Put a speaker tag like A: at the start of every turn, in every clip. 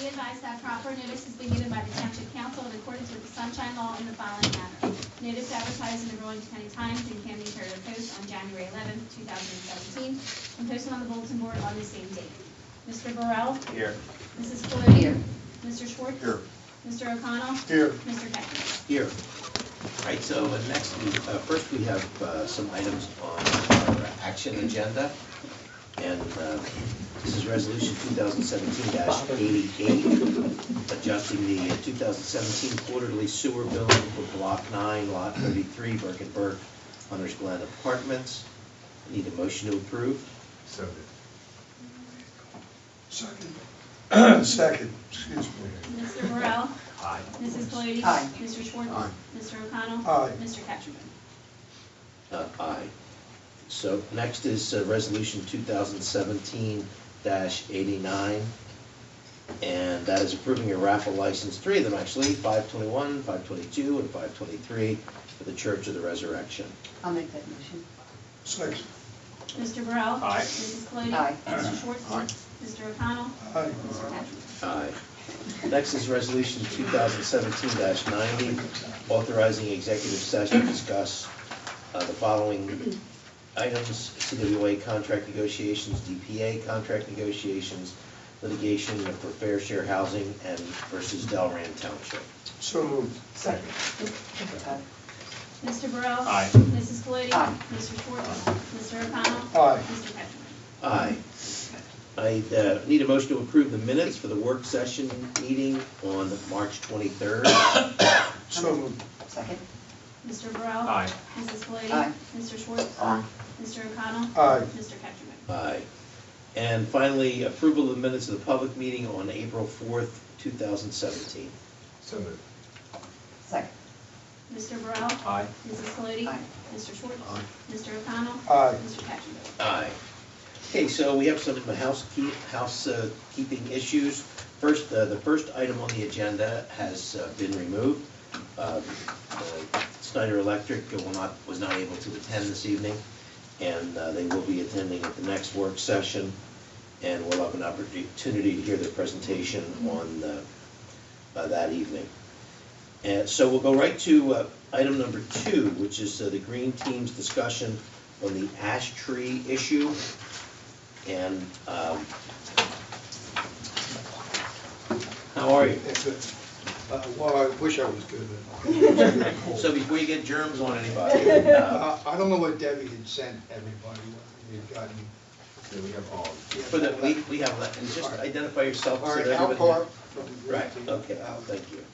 A: be advised that proper notice has been given by the Township Council in accordance with the Sunshine Law in the following manner. Notice advertised in the Rowan County Times and Camden Courier Post on January eleventh, two thousand and seventeen, and posted on the bulletin board on the same date. Mr. Burrell?
B: Here.
A: Mrs. Flode? Here. Mr. Schwartz?
B: Here.
A: Mr. O'Connell?
B: Here.
A: Mr. Ketchum?
C: Here. All right, so uh, next, we, uh, first we have uh, some items on our action agenda. And uh, this is Resolution 2017-88, adjusting the uh, 2017 quarterly sewer bill for Block 9, Lot 33, Burkettburg, Hunter's Glen Apartments. Need a motion to approve?
B: So moved.
D: Second. Second, excuse me.
A: Mr. Burrell?
B: Aye.
A: Mrs. Flode?
E: Aye.
A: Mr. Schwartz?
D: Aye.
A: Mr. O'Connell?
D: Aye.
A: Mr. Ketchum?
C: Uh, Aye. So next is uh, Resolution 2017-89, and that is approving a raffle license, three of them actually, 521, 522, and 523 for the Church of the Resurrection.
E: I'll make that motion.
D: Second.
A: Mr. Burrell?
B: Aye.
A: Mrs. Flode?
E: Aye.
A: Mr. Schwartz?
D: Aye.
A: Mr. O'Connell?
D: Aye.
A: Mr. Ketchum?
C: Aye. Next is Resolution 2017-90, authorizing executive session to discuss uh, the following items, CWA contract negotiations, DPA contract negotiations, litigation for fair share housing and versus Delran Township.
D: So moved.
E: Second.
A: Mr. Burrell?
B: Aye.
A: Mrs. Flode?
E: Aye.
A: Mr. Schwartz? Mr. O'Connell?
D: Aye.
A: Mr. Ketchum?
C: Aye. I uh, need a motion to approve the minutes for the work session meeting on March 23rd.
D: So moved.
E: Second.
A: Mr. Burrell?
B: Aye.
A: Mrs. Flode?
E: Aye.
A: Mr. Schwartz? Mr. O'Connell?
D: Aye.
A: Mr. Ketchum?
C: Aye. And finally, approval of the minutes of the public meeting on April 4th, 2017.
B: So moved.
E: Second.
A: Mr. Burrell?
B: Aye.
A: Mrs. Flode?
E: Aye.
A: Mr. Schwartz? Mr. O'Connell?
D: Aye.
A: Mr. Ketchum?
C: Aye. Okay, so we have some housekeep- housekeeping issues. First, uh, the first item on the agenda has uh, been removed. Uh, uh, Snyder Electric will not, was not able to attend this evening, and uh, they will be attending at the next work session, and we'll have an opportunity to hear their presentation on uh, uh, that evening. And so we'll go right to uh, item number two, which is uh, the Green Team's discussion on the ash tree issue. And um, how are you?
D: That's it. Uh, Well, I wish I was good
C: So
D: at
C: before you get germs on anybody, uh,
D: Uh, I don't know what Debbie had sent everybody, what we had gotten.
B: So we have all.
C: for the, we, we have, let- and just identify yourself. so
D: All right,
C: that
D: Al
C: everybody-
D: Park from the Green
C: Right,
D: Team.
C: okay,
D: Uh,
C: thank you.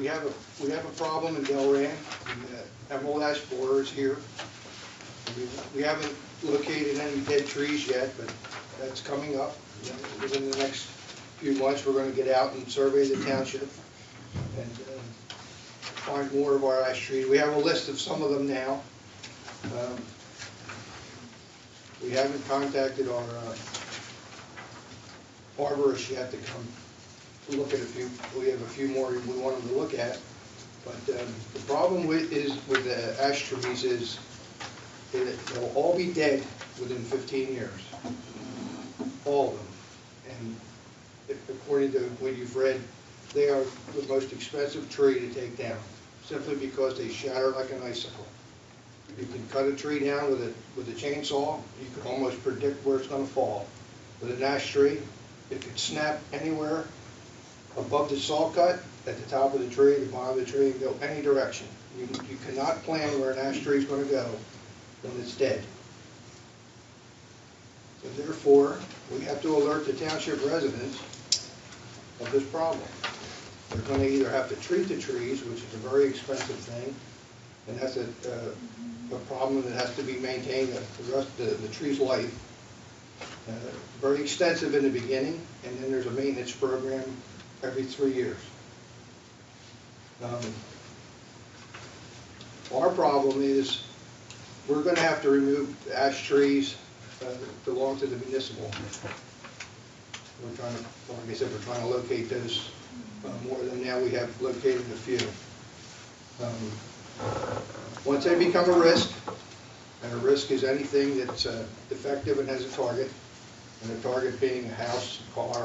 D: We have a, we have a problem in Delran, and, uh, Emerald Ash Borer is here. We- We haven't located any dead trees yet, but that's coming up. You know, Within the next few months, we're gonna get out and survey the township and uh, find more of our ash trees. We have a list of some of them now. Um, We haven't contacted our uh, arborist yet to come look at a few, we have a few more we want them to look at. But um, the problem with, is, with the ash trees is, that they'll all be dead within 15 years. All of them. And if- according to what you've read, they are the most expensive tree to take down, simply because they shatter like an icicle. You can cut a tree down with a, with a chainsaw, you can almost predict where it's gonna fall. With an ash tree, it could snap anywhere above the saw cut, at the top of the tree, the bottom of the tree, and go any direction. You, you cannot plan where an ash tree is gonna go when it's dead. So therefore, we have to alert the township residents of this problem. They're gonna either have to treat the trees, which is a very expensive thing, and that's a, uh, a problem that has to be maintained the rest, the, the tree's life. Uh, Very extensive in the beginning, and then there's a maintenance program every three years. Um, Our problem is, we're gonna have to remove ash trees uh, that belong to the municipal. We're trying to, like I said, we're trying to locate those uh, more than now, we have located a few. Um, Once they become a risk, and a risk is anything that's uh, defective and has a target, and the target being a house, car,